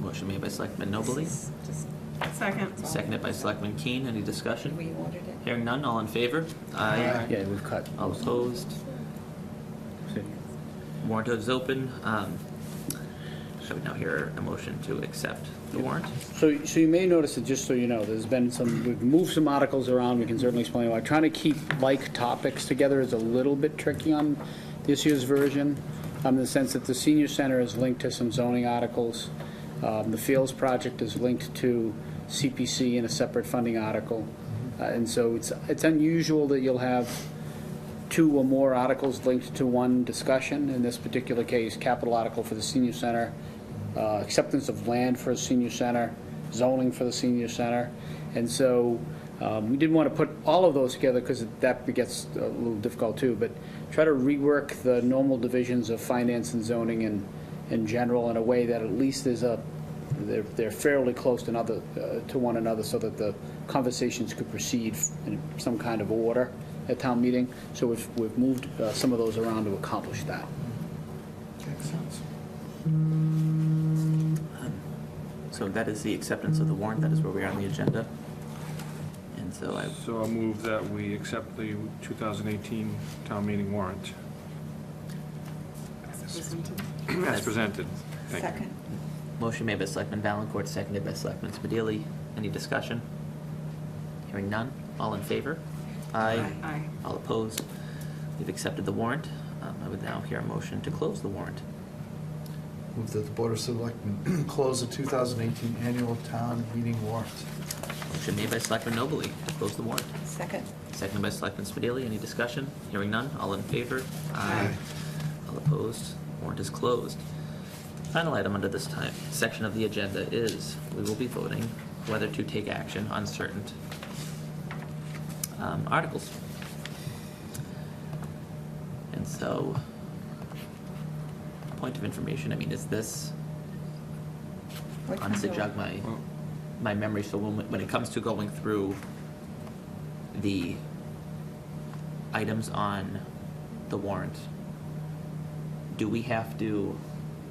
Motion made by Selectman Nobley, Second. seconded by Selectman Keen. Any discussion? We ordered it. Hearing none, all in favor? Aye. Yeah, we've cut. All opposed? Warrant is open. Um, Shall we now hear a motion to accept the warrant? So, so you may notice that, just so you know, there's been some, we've moved some articles around, we can certainly explain why. Trying to keep like topics together is a little bit tricky on this year's version, um, in the sense that the senior center is linked to some zoning articles. Um, The Fields project is linked to CPC in a separate funding article. Uh, And so it's, it's unusual that you'll have two or more articles linked to one discussion. In this particular case, capital article for the senior center, uh, acceptance of land for the senior center, zoning for the senior center. And so um, we didn't want to put all of those together because that gets a little difficult too, but try to rework the normal divisions of finance and zoning in, in general in a way that at least there's a, they're they're fairly close to another, uh, to one another so that the conversations could proceed in some kind of order at town meeting. So we've, we've moved uh, some of those around to accomplish that. So that is the acceptance of the warrant. That is where we are on the agenda. And so I, So I'll move that we accept the 2018 town meeting warrant as presented. Thank you. Second. motion made by Selectman Valencourt, seconded by Selectman Spadili. Any discussion? Hearing none, all in favor? Aye. Aye. All opposed? We've accepted the warrant. Um, I would now hear a motion to close the warrant. Move that the Board of Selectmen close the 2018 annual town meeting warrant. Motion made by Selectman Nobley to close the warrant. Second. Seconded by Selectman Spadili. Any discussion? Hearing none. All in favor? Aye. All opposed? Warrant is closed. Final item under this time, section of the agenda is, we will be voting whether to take action on certain um, articles. And so, point of information, I mean, is this, What honestly kind of- jog my, Well- my memory, so when, when it comes to going through the items on the warrant, do we have to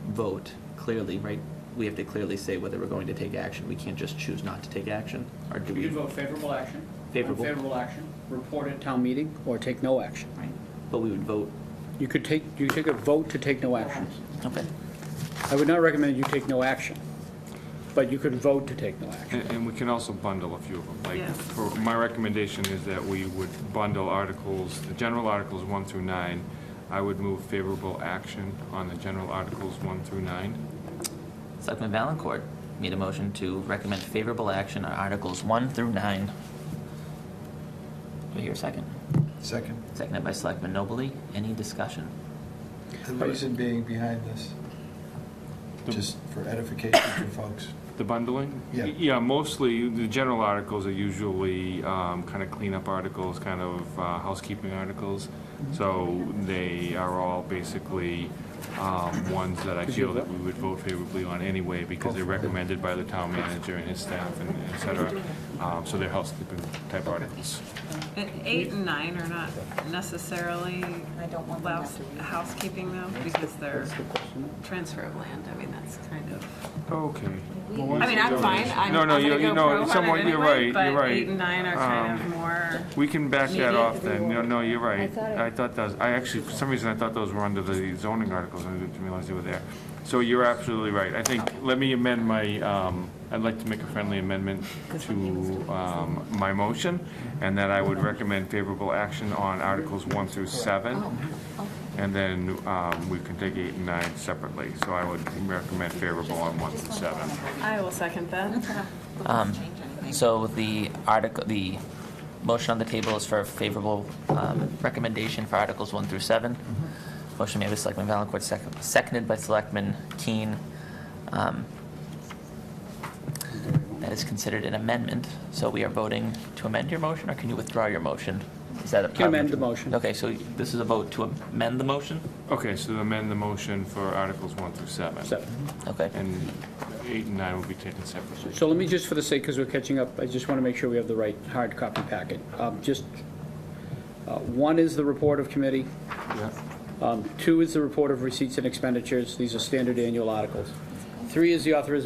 vote clearly, right? We have to clearly say whether we're going to take action, we can't just choose not to take action, or do We we? could vote favorable action. Favorable. Favorable action. Report at town meeting or take no action. Right. But we would vote, You could take, you could take a vote to take no action. okay, I would not recommend you take no action, but you could vote to take no action. And and we can also bundle a few of them. Like, Yes. for- my recommendation is that we would bundle articles, the general articles 1 through 9. I would move favorable action on the general articles 1 through 9. Selectman Valencourt made a motion to recommend favorable action on Articles one through nine. Do I hear a second? Second. Seconded by Selectman Nobley. Any discussion? The reason being behind this, just for edification for folks. The bundling? Yeah. Yeah, mostly, the general articles are usually kind of cleanup articles, kind of uh, housekeeping articles. So they are all basically um, ones that I feel that we would vote favorably on anyway because they're recommended by the town manager and his staff and et cetera. Um, So they're housekeeping type articles. And Eight and nine are not necessarily I don't want them house- to read. housekeeping though, because they're That's the question. transfer of land. I mean, that's kind of, Okay. I mean, I'm fine. I'm No, I'm no, gonna you- go you know, pro on somewhat- it you're anyway, right, you're but right. eight and nine are kind of Um, more, We can back that Maybe. off then. No, no, you're right. thought it- I thought those, I actually, for some reason, I thought those were under the zoning articles. I didn't realize they were there. So you're absolutely right. I think, let me amend my, um, I'd like to make a friendly amendment to um, my motion, and that I would recommend favorable action on Articles 1 through 7, Oh. and then um, we can take 8 and 9 separately. So I would recommend favorable on 1 through 7. I will second that. Um, So the article, the motion on the table is for favorable um, recommendation for Articles 1 through 7. Mm-hmm. Motion made by Selectman Valencourt, sec- seconded by Selectman Keen. Um, That is considered an amendment, so we are voting to amend your motion, or can you withdraw your motion? Is that a... Can amend the motion. Okay, so this is a vote to amend the motion? Okay, so amend the motion for Articles 1 through 7. Seven. Okay. And eight and nine will be taken separately. So let me just, for the sake, because we're catching up, I just want to make sure we have the right hard copy packet. Um, Just, uh, one is the report of committee, um, two is the report of receipts and expenditures, these are standard annual articles. Three is the authorization